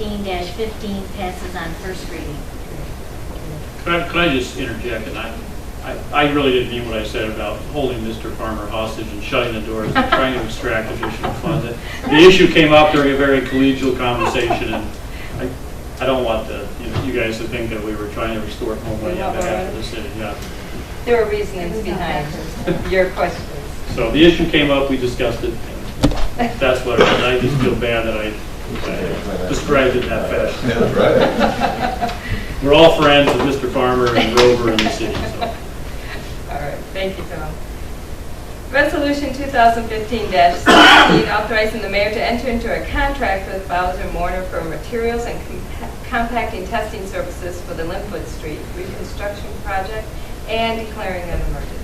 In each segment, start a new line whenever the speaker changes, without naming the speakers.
2015-15 passes on first reading.
Could I, could I just interject, and I, I- I really didn't mean what I said about holding Mr. Farmer hostage and shutting the doors and trying to extract additional funds. It- The issue came up during a very collegial conversation, and I, I don't want the, you know, you guys to think that we were trying to restore homeland on behalf of the city, yeah.
There are reasons behind your questions.
So the issue came up, we discussed it, and that's what, it was. I just feel bad that I I described it in that fashion.
Yeah, right.
We're all friends with Mr. Farmer and Rover and the city, so.
All right, thank you, Tom. Resolution 2015-16, authorizing the mayor to enter into a contract with Bowser Mourner for materials and compa- compacting testing services for the Linwood Street reconstruction project and declaring an emergency.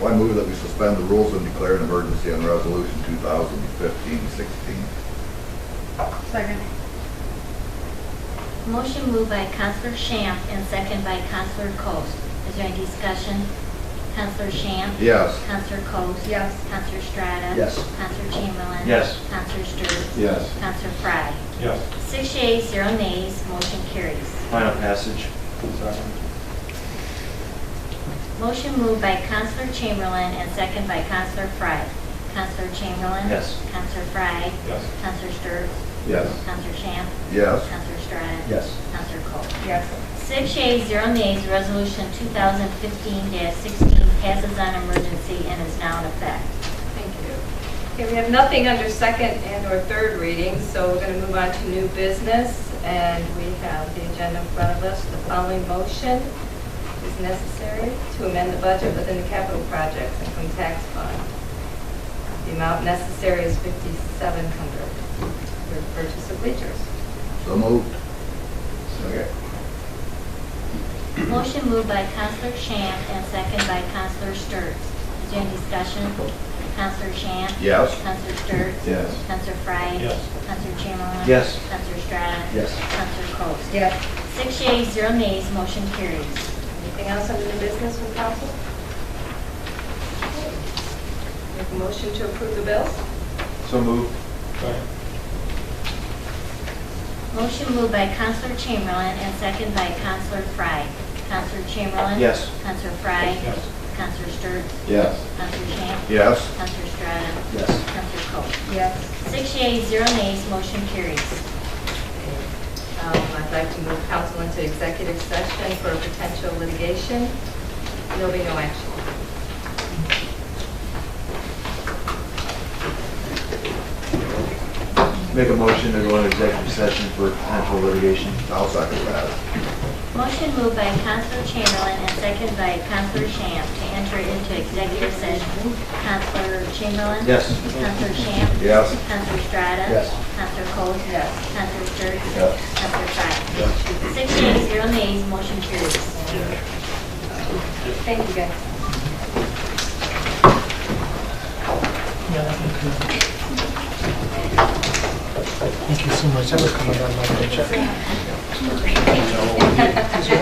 Why move that we suspend the rules and declare an emergency on resolution 2015-16?
Second.
Motion moved by Counselor Shamp and second by Counselor Coats. Is there any discussion? Counselor Shamp?
Yes.
Counselor Coats?
Yes.
Counselor Strata?
Yes.
Counselor Chamberlain?
Yes.
Counselor Stewart?
Yes.
Counselor Frye?
Yes.
Six yeas, zero nays, motion carries.
Final passage.
Motion moved by Counselor Chamberlain and second by Counselor Frye. Counselor Chamberlain?
Yes.
Counselor Frye?
Yes.
Counselor Stewart?
Yes.
Counselor Shamp?
Yes.
Counselor Strata?
Yes.
Counselor Coats?
Yes.
Six yeas, zero nays, resolution 2015-16 passes on emergency and is now in effect.
Thank you. Okay, we have nothing under second and/or third reading, so we're going to move on to new business, and we have the agenda in front of us. The following motion is necessary to amend the budget within the capital projects and from tax fund. The amount necessary is 5,700 for purchase of bleachers.
So moved. Okay.
Motion moved by Counselor Shamp and second by Counselor Sturts. Is there any discussion? Counselor Shamp?
Yes.
Counselor Sturts?
Yes.
Counselor Frye?
Yes.
Counselor Chamberlain?
Yes.
Counselor Strata?
Yes.
Counselor Coats?
Yes.
Six yeas, zero nays, motion carries.
Anything else under the business from council? Make a motion to approve the bills?
So moved.
Motion moved by Counselor Chamberlain and second by Counselor Frye. Counselor Chamberlain?
Yes.
Counselor Frye?
Yes.
Counselor Sturts?
Yes.
Counselor Shamp?
Yes.
Counselor Strata?
Yes.
Counselor Coats?
Yes.
Six yeas, zero nays, motion carries.
Um, I'd like to move council into executive session for potential litigation. There'll be no action.
Make a motion to go into executive session for potential litigation.
I'll second that.
Motion moved by Counselor Chamberlain and second by Counselor Shamp to enter into executive session. Counselor Chamberlain?
Yes.
Counselor Shamp?
Yes.
Counselor Strata?
Yes.
Counselor Coats?
Yes.
Counselor Sturts?
Yes.
Counselor Frye? Six yeas, zero nays, motion carries.
Thank you, guys.
Thank you so much for coming on my paycheck.